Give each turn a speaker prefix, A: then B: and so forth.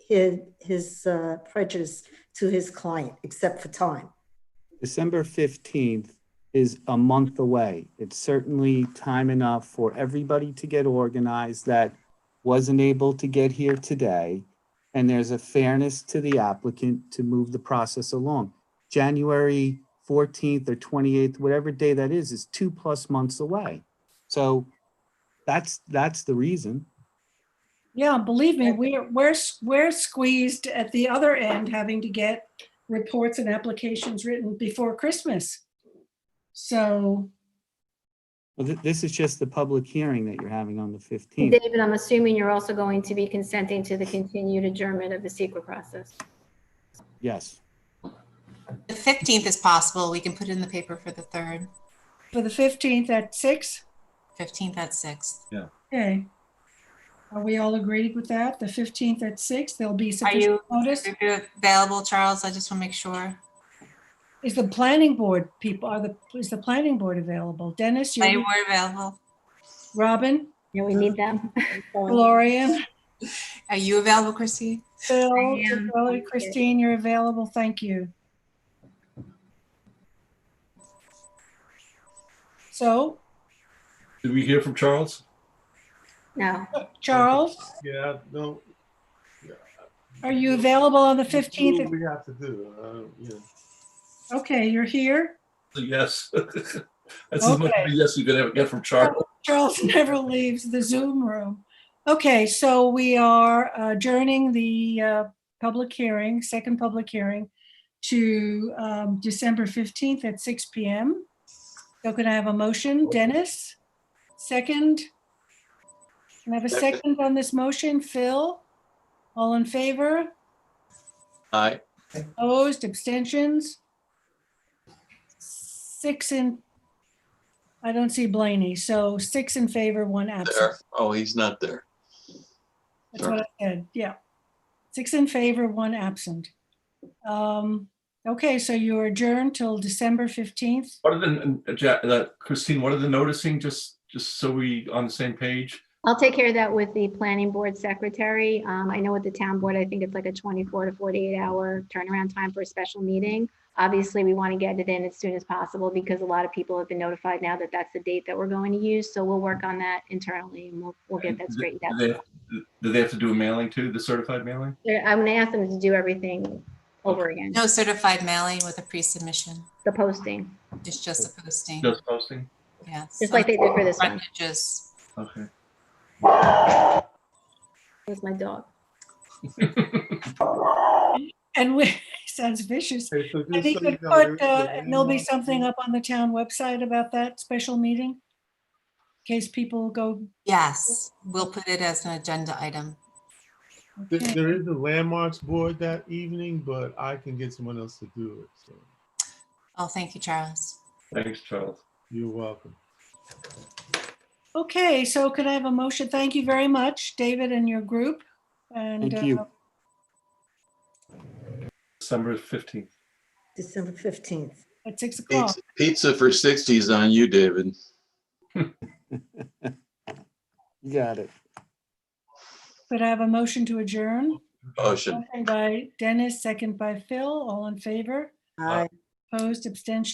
A: his, his uh, prejudice to his client, except for time.
B: December 15th is a month away. It's certainly time enough for everybody to get organized that wasn't able to get here today. And there's a fairness to the applicant to move the process along. January 14th or 28th, whatever day that is, is two plus months away. So that's, that's the reason.
C: Yeah, believe me, we're, we're, we're squeezed at the other end, having to get reports and applications written before Christmas. So,
B: Well, th- This is just the public hearing that you're having on the 15th.
D: David, I'm assuming you're also going to be consenting to the continued adjournment of the secret process.
B: Yes.
E: The fifteenth is possible. We can put it in the paper for the third,
C: for the 15th at six.
E: fifteenth at sixth.
C: okay. Are we all agreed with that? The 15th at six. there'll be
E: you-
C: sufficient notice.
E: If you're available, Charles, I just want to make sure.
C: Is the planning board people, are the, is the planning board available? Dennis,
E: Are
C: you,
E: you more available?
C: Robin,
D: Yeah, we need them.
C: Gloria,
E: Are you available, Christine?
C: Phil,
D: I am.
C: Gloria, Christine, you're available. Thank you. So
F: Did we hear from Charles?
D: No,
C: Charles,
G: Yeah, no.
C: are you available on the 15th?
G: We have to do, uh, yeah.
C: Okay, you're here.
F: Yes. That's as much
C: Okay.
F: of a yes you could ever get from Charles.
C: Charles never leaves the Zoom room. Okay, so we are adjourning the uh, public hearing, second public hearing to um, December 15th at 6 PM. So can I have a motion? Dennis? Second? Can I have a second on this motion? Phil? All in favor?
G: Aye.
C: Opposed, abstentions? Six in, I don't see Blaney, so six in favor, one absent.
G: There. Oh, he's not there.
C: That's what I said, yeah. Six in favor, one absent. Um, Okay, so you're adjourned till December 15th.
F: What are the, uh, Ja- uh, Christine, what are the noticing, just, just so we on the same page?
D: I'll take care of that with the planning board secretary. Um, I know with the town board, I think it's like a 24 to 48 hour turnaround time for a special meeting. Obviously, we want to get it in as soon as possible because a lot of people have been notified now that that's the date that we're going to use. So we'll work on that internally and we'll, we'll get that straightened
F: Do
D: out.
F: they- do they have to do a mailing too, the certified mailing?
D: They're- I'm going to ask them to do everything over again,
E: No certified mailing with a pre-submission.
D: the posting,
E: It's just a posting.
F: Just posting?
E: Yes.
D: just like they did for this one.
E: Just,
F: Okay.
D: That's my dog.
C: And we, sounds vicious.
G: Okay, so
C: And
G: just
C: he
G: so you
C: could
G: know,
C: put, uh,
G: everything-
C: and there'll be something up on the town website about that special meeting? In case people go,
E: yes, we'll put it as an agenda item.
G: There-
C: okay.
G: There is a landmarks board that evening, but I can get someone else to do it, so
E: Oh, thank you, Charles.
F: Thanks, Charles.
G: you're welcome.
C: Okay, so could I have a motion? Thank you very much, David and your group. And
B: Thank you.
C: uh,
F: December 15th.
A: December 15th.
C: at six o'clock.
H: Pizza- Pizza for 60s on you, David.
B: You got it.
C: Could I have a motion to adjourn?
H: Ocean.
C: Motion by Dennis, second by Phil, all in favor?
A: I
C: Opposed, abstentions?